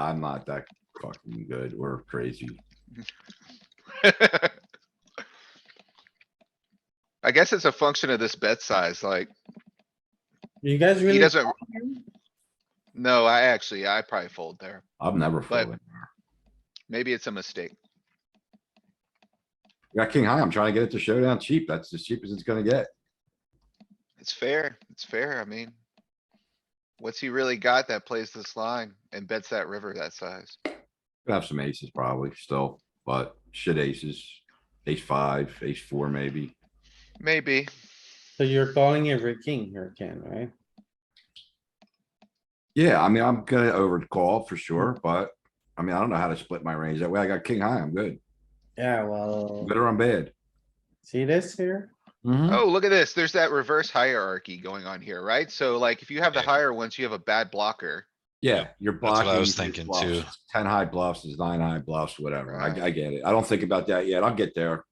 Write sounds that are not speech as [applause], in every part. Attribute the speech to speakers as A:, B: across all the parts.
A: I'm not that fucking good or crazy.
B: I guess it's a function of this bet size, like,
C: You guys
B: he
C: really,
B: doesn't. No, I actually, I probably fold there.
A: I'm never
B: But-
A: folding.
B: Maybe it's a mistake.
A: We Got king high. I'm trying to get it to showdown cheap. That's as cheap as it's gonna get.
B: It's fair, it's fair, I mean. What's he really got that plays this line and bets that river that size?
A: Could have some aces probably still, but shit aces, ace five, ace four maybe.
B: Maybe.
C: so you're calling every king here, Ken, right?
A: Yeah, I mean, I'm gonna overcall for sure, but I mean, I don't know how to split my range. That way I got king high. I'm good.
C: Yeah, well,
A: Good or I'm bad.
C: see this here?
B: Oh, look at this. There's that reverse hierarchy going on here, right? So like, if you have the
D: Yeah.
B: higher ones, you have a bad blocker.
A: Yeah, you're
D: That's what
A: blocking.
D: I was
A: his
D: thinking
A: bluffs.
D: too.
A: It's Ten high bluffs is nine high bluffs, whatever. I,
B: Right.
A: I get it. I don't think about that yet. I'll get there.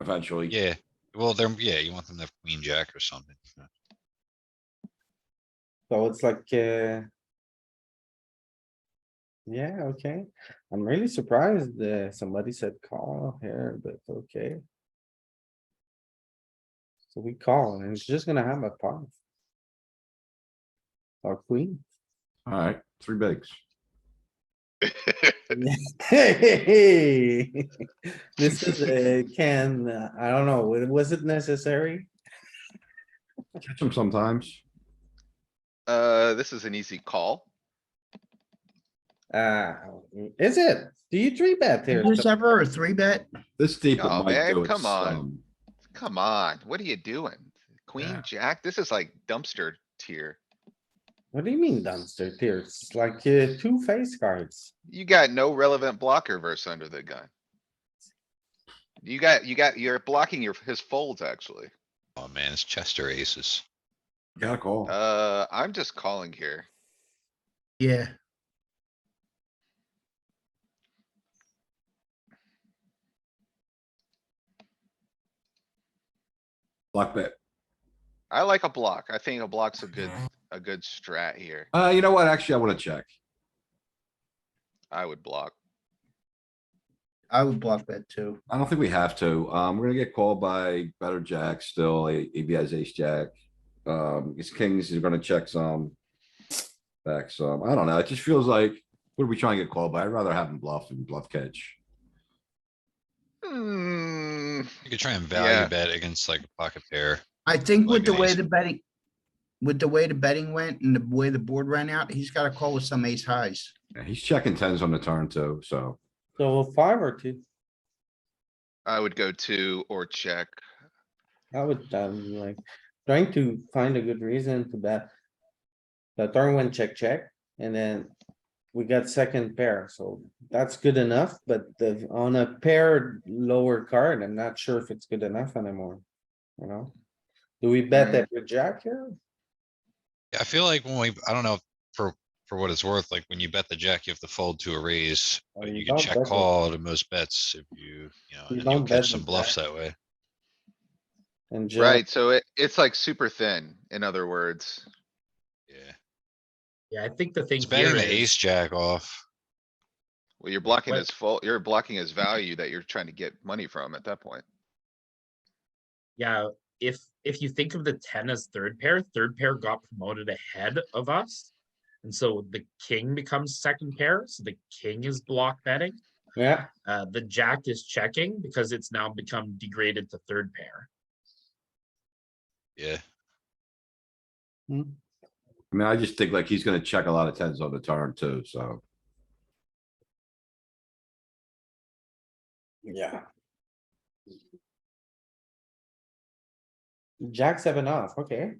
A: Eventually.
D: Yeah, well, they're, yeah, you want them to have queen jack or something.
C: So it's like, uh. Yeah, okay. I'm really surprised that somebody said call here, but okay. So we call and it's just gonna have a pot. Or queen. [laughs]
A: Alright, three bigs.
C: Hey, this is a can, uh, I don't know, wa- was it necessary?
A: Catch them sometimes.
B: Uh, this is an easy call.
C: Uh, is it? Do you three bet here?
E: There's ever a three bet?
A: This deep. it
B: Oh,
A: might
B: man,
A: do it
B: come on.
A: some.
B: Come on, what are you doing? Queen,
E: Yeah.
B: jack, this is like dumpster tier.
C: What do you mean dumpster tier? It's like uh, two face cards.
B: You got no relevant blocker verse under the gun. You got, you got, you're blocking your, his folds, actually.
D: Oh, man, it's Chester aces.
A: Gotta call.
B: Uh, I'm just calling here.
E: Yeah,
A: Block bet.
B: I like a block. I think a block's a good, a good strat here.
A: Uh, you know what? Actually, I wanna check.
B: I would block.
E: I would block that too.
A: I don't think we have to. Um, we're gonna get called by better jack still. A- AB has ace jack. Um, his kings are gonna check some. Back some. I don't know. It just feels like, what are we trying to get called by? I'd rather have him bluff and bluff catch.
B: Hmm,
D: You could try and
B: Yeah.
D: value bet against like a pocket pair.
E: I think
D: Like
E: with the
D: an
E: way
D: ace.
E: the betting, with the way the betting went and the way the board ran out, he's got to call with some ace highs.
A: Yeah, he's checking tens on the turn too, so.
C: So five or two,
B: I would go two or check.
C: I would, um, like, trying to find a good reason to bet. The turn went check, check, and then we got second pair, so that's good enough, but the, on a paired lower card, I'm not sure if it's good enough anymore. You know? Do we bet
B: Mm.
C: that with jack here?
D: Yeah, I feel like when we, I don't know, for, for what it's worth, like when you bet the jack, you have to fold to a raise.
C: Oh,
D: But
C: you
D: you
C: don't
D: can check
C: bet the-
D: call to most bets if you, you know,
C: You
D: and
C: don't
D: you'll
C: bet
D: catch some
C: the
D: bluffs that way.
C: And jack,
B: Right, so it, it's like super thin, in other words.
D: Yeah,
F: Yeah, I think the thing
D: it's betting
F: here
D: the ace
F: is,
D: jack off.
B: Well, you're blocking
F: Wait.
B: his fault, you're blocking his value that you're trying to get money from at that point.
F: yeah, if, if you think of the ten as third pair, third pair got promoted ahead of us. And so the king becomes second pair, so the king is block betting.
C: yeah,
F: Uh, the jack is checking because it's now become degraded to third pair.
D: Yeah,
A: I mean, I just think like he's gonna check a lot of tens on the turn too, so.
C: yeah. Jack seven off, okay.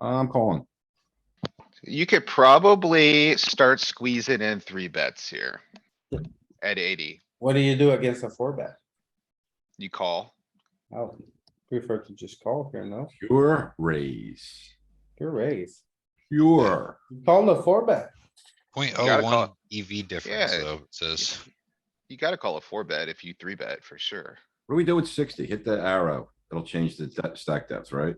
A: I'm calling.
B: You could probably start squeezing in three bets here. At eighty,
C: What do you do against a four bet?
B: you call.
C: I would prefer to just call here, no?
A: Pure raise.
C: Pure raise.
A: Pure.
C: You Call the four bet.
D: point
B: gotta
D: oh
B: call
D: one EV difference
B: Yeah.
D: though, it says.
B: You gotta call a four bet if you three bet for sure.
A: What do we do with sixty? Hit the arrow. It'll change the de- stack depth, right?